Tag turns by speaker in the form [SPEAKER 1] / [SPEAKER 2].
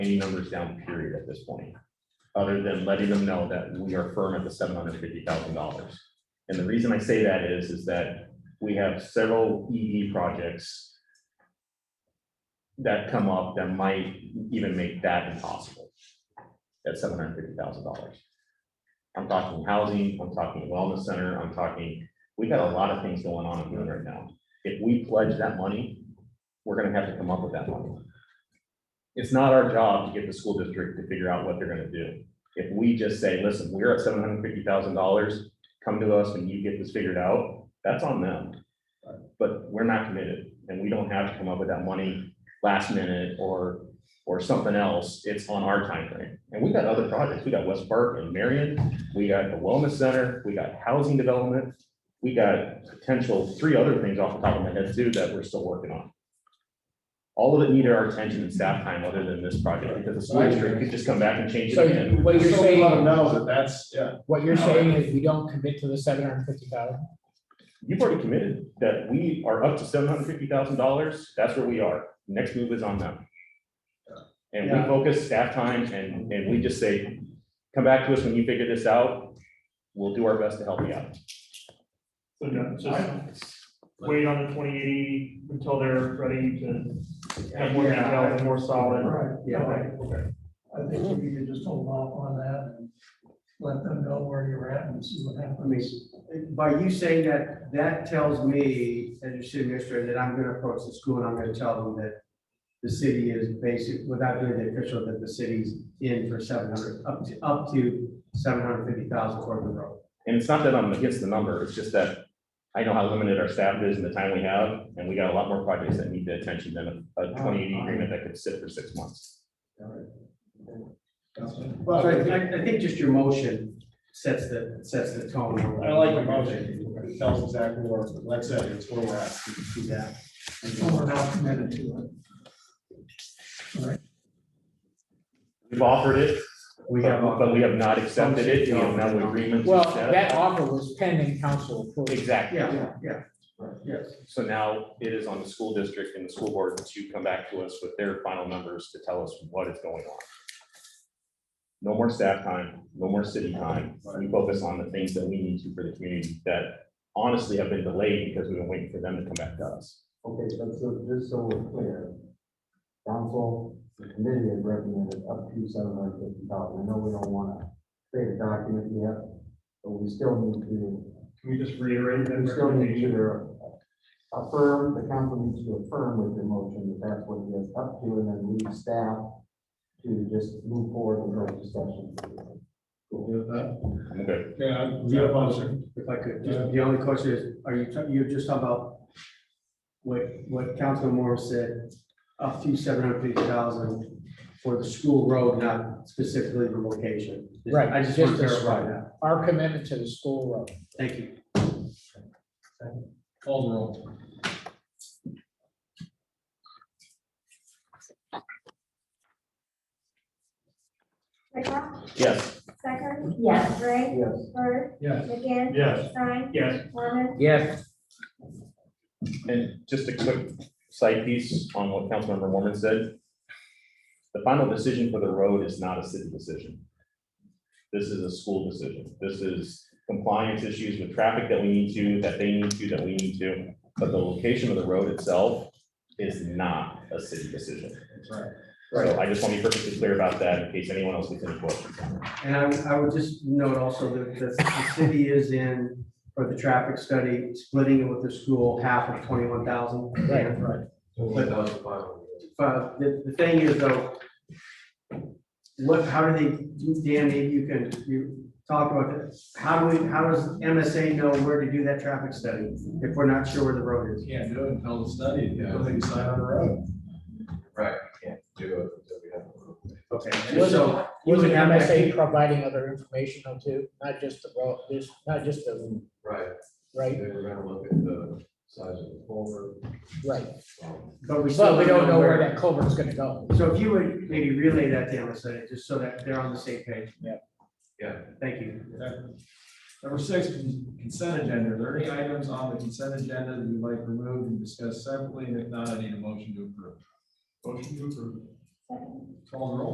[SPEAKER 1] any numbers down period at this point. Other than letting them know that we are firm at the seven hundred fifty thousand dollars. And the reason I say that is, is that we have several ED projects. That come up that might even make that impossible. At seven hundred fifty thousand dollars. I'm talking housing, I'm talking wellness center, I'm talking, we got a lot of things going on in Boone right now. If we pledge that money, we're gonna have to come up with that money. It's not our job to get the school district to figure out what they're gonna do. If we just say, listen, we're at seven hundred fifty thousand dollars, come to us when you get this figured out, that's on them. But we're not committed, and we don't have to come up with that money last minute or, or something else, it's on our timeframe. And we got other projects, we got West Park and Marion, we got the Wellness Center, we got housing development, we got potential, three other things off the top of my head too, that we're still working on. All of it needed our attention and staff time other than this project, because the school district could just come back and change it
[SPEAKER 2] So
[SPEAKER 1] again.
[SPEAKER 2] what you're
[SPEAKER 3] So we Let them
[SPEAKER 2] saying,
[SPEAKER 3] know that that's, yeah,
[SPEAKER 2] what you're saying is we don't commit to the seven hundred and fifty thousand.
[SPEAKER 1] You've already committed that we are up to seven hundred fifty thousand dollars. That's where we are. Next move is on them. And we
[SPEAKER 3] Yeah.
[SPEAKER 1] focus staff time and, and we just say, come back to us when you figure this out. We'll do our best to help you out.
[SPEAKER 4] So no, just wait on the twenty eighty until they're ready to have more detail and more solid.
[SPEAKER 5] Right,
[SPEAKER 4] Okay,
[SPEAKER 5] yeah,
[SPEAKER 4] okay.
[SPEAKER 5] I think we could just hold off on that and let them know where you're at and see what happens.
[SPEAKER 6] By you saying that, that tells me, as your city administrator, that I'm gonna approach the school and I'm gonna tell them that the city is basic, without doing the official, that the city's in for seven hundred, up to, up to seven hundred fifty thousand for the road.
[SPEAKER 1] And it's not that I'm against the number. It's just that I know how limited our staff is and the time we have, and we got a lot more projects that need the attention than a- a twenty eighty agreement that could sit for six months.
[SPEAKER 6] So I, I- I think just your motion sets the, sets the tone.
[SPEAKER 3] I like the motion, it tells exactly where, like I said, it's where we're at, you can see that.
[SPEAKER 5] So we're not committed to
[SPEAKER 1] We've offered it,
[SPEAKER 6] We have, uh,
[SPEAKER 1] but we have not accepted it. We have no agreement. to
[SPEAKER 2] Well,
[SPEAKER 1] accept.
[SPEAKER 2] that offer was pending council approval.
[SPEAKER 1] Exactly.
[SPEAKER 6] yeah, yeah, yes.
[SPEAKER 1] So now it is on the school district and the school board to come back to us with their final numbers to tell us what is going on. No more staff time, no more city time. We focus on the things that we need to for the community that honestly have been delayed because we've been waiting for them to come back to us.
[SPEAKER 7] Okay, but so, just so we're clear, council, the committee has recommended up to seven hundred fifty thousand. I know we don't wanna create a document yet, but we still need to,
[SPEAKER 4] Can we just reiterate
[SPEAKER 7] we still need to affirm, the council needs to affirm with the motion that that's what it is up to, and then leave staff to just move forward with our discussion.
[SPEAKER 3] Cool with that?
[SPEAKER 1] I'm good.
[SPEAKER 3] Yeah, I'm-
[SPEAKER 6] Yeah, If I could, just, the only question is, are you, ta- you're just talking about what, what Councilman Morris said, up to seven hundred fifty thousand for the school road, not specifically the location.
[SPEAKER 2] Right,
[SPEAKER 6] I just want to
[SPEAKER 2] just the
[SPEAKER 6] clarify
[SPEAKER 2] school.
[SPEAKER 6] that.
[SPEAKER 2] Our commitment to the school road.
[SPEAKER 6] Thank you.
[SPEAKER 3] Call the roll.
[SPEAKER 8] Pickla,
[SPEAKER 1] Yes,
[SPEAKER 8] Stecker. Yes. Gray.
[SPEAKER 7] Yes.
[SPEAKER 8] Bird.
[SPEAKER 3] Yes.
[SPEAKER 8] McGinn.
[SPEAKER 4] Yes.
[SPEAKER 8] Stein.
[SPEAKER 4] Yes.
[SPEAKER 8] Mormon.
[SPEAKER 2] Yes.
[SPEAKER 1] and just a quick side piece on what Councilmember Mormon said. The final decision for the road is not a city decision. This is a school decision. This is compliance issues with traffic that we need to, that they need to, that we need to. But the location of the road itself is not a city decision. Right. So I just want to be perfectly clear about that in case anyone else gets any questions.
[SPEAKER 6] And I, I would just note also that the, the city is in, for the traffic study, splitting it with the school, half of twenty-one thousand.
[SPEAKER 2] Right.
[SPEAKER 6] Right. But the, the thing is though, what, how do they, Dan, maybe you can, you talk about it. How do we, how does MSA know where to do that traffic study if we're not sure where the road is?
[SPEAKER 3] Can't do it until the study, until they decide on the road.
[SPEAKER 6] Okay, and
[SPEAKER 2] Was
[SPEAKER 6] so.
[SPEAKER 2] it, was it MSA providing other information though too, not just the road, just, not just the. Right. Right, right.
[SPEAKER 6] But we
[SPEAKER 2] But
[SPEAKER 6] still
[SPEAKER 2] we don't know where that culvert's gonna go.
[SPEAKER 6] So if you would maybe relay that to MSA, just so that they're on the same page.
[SPEAKER 2] Yeah.
[SPEAKER 6] Yeah. Thank you.
[SPEAKER 3] Number six, consent agenda. Are there any items on the consent agenda that you'd like removed and discussed separately? If not, I need a motion to approve. Motion to approve.
[SPEAKER 8] Second.
[SPEAKER 3] Call the roll.